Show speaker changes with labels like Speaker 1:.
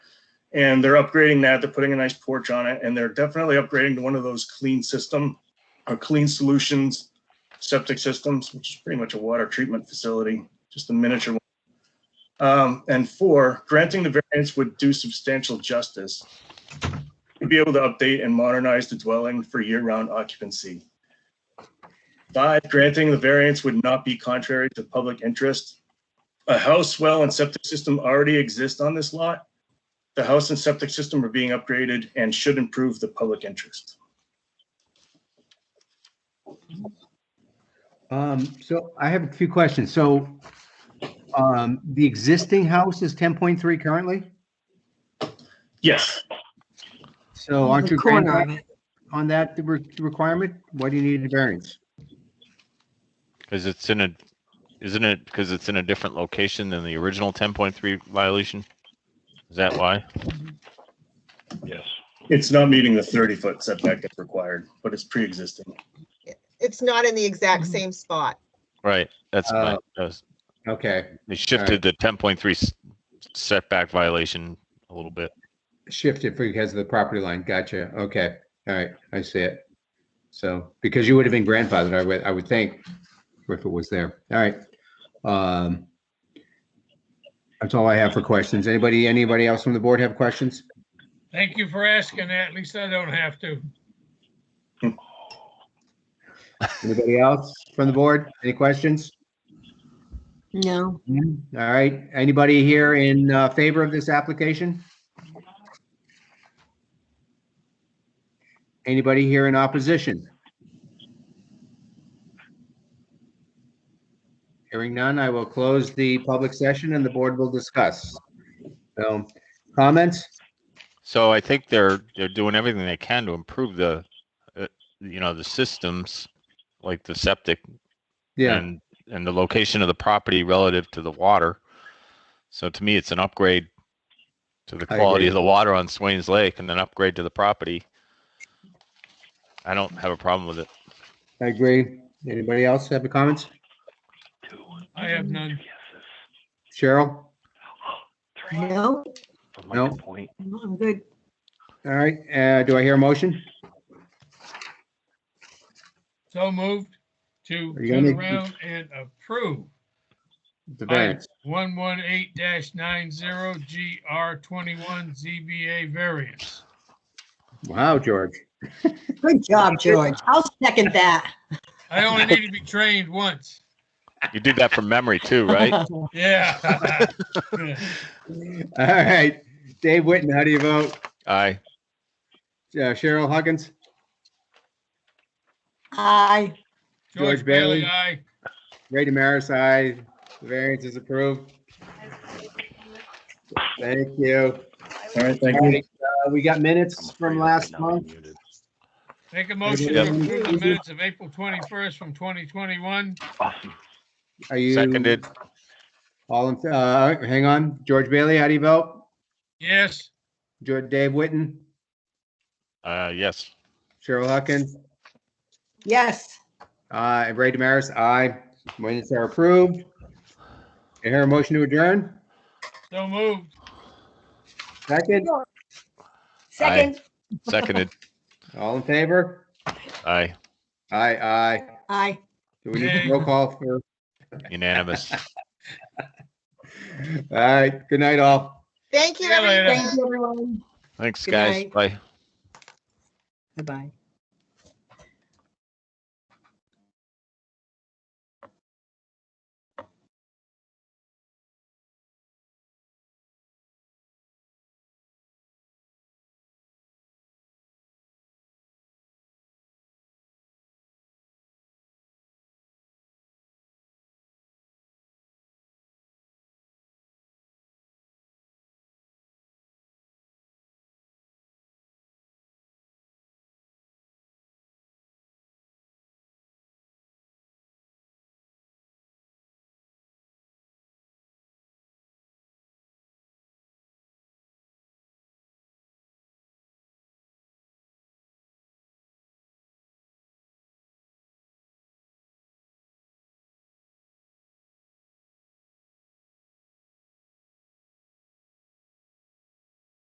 Speaker 1: And they're upgrading that. They're putting a nice porch on it and they're definitely upgrading to one of those clean system or clean solutions septic systems, which is pretty much a water treatment facility, just a miniature one. Um, and four, granting the variance would do substantial justice. to Be able to update and modernize the dwelling for year-round occupancy. Five, granting the variance would not be contrary to public interest. A house, well, and septic system already exist on this lot. The house and septic system are being upgraded and should improve the public interest.
Speaker 2: Um, so I have a few questions. So, um, the existing house is ten point three currently?
Speaker 1: Yes,
Speaker 2: So aren't
Speaker 3: The
Speaker 2: you
Speaker 3: corner of
Speaker 2: grandfathered
Speaker 3: it.
Speaker 2: on that re- requirement? Why do you need a variance?
Speaker 4: Because it's in a, isn't it, because it's in a different location than the original ten point three violation? Is that why?
Speaker 5: Yes.
Speaker 1: it's not meeting the 30-foot setback that's required, but it's pre-existing.
Speaker 6: It's not in the exact
Speaker 3: Mhm.
Speaker 6: same spot.
Speaker 4: Right, that's, my-
Speaker 2: Uh,
Speaker 4: that was-
Speaker 2: Okay,
Speaker 4: they shifted the ten point three setback violation a little bit.
Speaker 2: shifted because of the property line. Gotcha. Okay, all right, I see it. So, because you would have been grandfathered, I would, I would think, if it was there. All right. Um, that's all I have for questions. Anybody, anybody else from the board have questions?
Speaker 7: Thank you for asking that. At least I don't have to.
Speaker 2: Anybody else from the board? Any questions?
Speaker 3: No,
Speaker 2: All right, anybody here in uh, favor of this application? Anybody here in opposition? Hearing none, I will close the public session and the board will discuss. So, comments?
Speaker 4: So I think they're, they're doing everything they can to improve the, uh, you know, the systems, like the septic
Speaker 2: Yeah,
Speaker 4: and and the location of the property relative to the water. So to me, it's an upgrade to the
Speaker 2: I
Speaker 4: quality
Speaker 2: agree.
Speaker 4: of the water on Swains Lake and an upgrade to the property. I don't have a problem with it.
Speaker 2: I agree. Anybody else have a comments?
Speaker 7: I have none.
Speaker 2: Cheryl?
Speaker 3: no,
Speaker 2: No.
Speaker 5: Point.
Speaker 3: I'm good.
Speaker 2: All right, uh, do I hear a motion?
Speaker 7: So moved to
Speaker 2: Are you gonna
Speaker 7: turn
Speaker 2: make-
Speaker 7: around and approve
Speaker 2: The variance.
Speaker 7: one one eight nine zero GR twenty-one ZBA variance.
Speaker 2: Wow, George.
Speaker 3: Good job, George. I'll second that.
Speaker 7: I only need to be trained once.
Speaker 4: You did that from memory too, right?
Speaker 7: Yeah.
Speaker 2: All right, Dave Witten, how do you vote?
Speaker 4: Aye.
Speaker 2: Uh, Cheryl Huggins?
Speaker 3: Aye.
Speaker 7: George
Speaker 2: George
Speaker 7: Bailey,
Speaker 2: Bailey.
Speaker 7: aye.
Speaker 2: Ray Demaris, aye. The variance is approved. Thank you.
Speaker 1: All right, thank
Speaker 2: All
Speaker 1: you.
Speaker 2: right, uh, We got minutes from last month.
Speaker 7: Make a motion to
Speaker 2: Yep.
Speaker 7: approve the minutes of April twenty-first from twenty twenty-one.
Speaker 5: Awesome.
Speaker 2: Are you?
Speaker 4: Seconded.
Speaker 2: All, in- uh, hang on. George Bailey, how do you vote?
Speaker 7: Yes,
Speaker 2: George, Dave Witten,
Speaker 4: Uh, yes.
Speaker 2: Cheryl Huckins,
Speaker 3: Yes.
Speaker 2: uh, and Ray Demaris, aye. Minutes are approved. I hear a motion to adjourn.
Speaker 7: so moved.
Speaker 2: Second,
Speaker 3: Second.
Speaker 4: Seconded.
Speaker 2: all in favor?
Speaker 4: Aye.
Speaker 2: Aye, aye.
Speaker 3: Aye.
Speaker 2: Do we need a roll call for?
Speaker 4: Unanimous.
Speaker 2: All right, good night all.
Speaker 6: Thank you,
Speaker 7: See you later.
Speaker 6: everyone.
Speaker 3: Thank you, everyone.
Speaker 4: Thanks,
Speaker 3: Good
Speaker 4: guys.
Speaker 3: night.
Speaker 4: Bye.
Speaker 3: Bye-bye.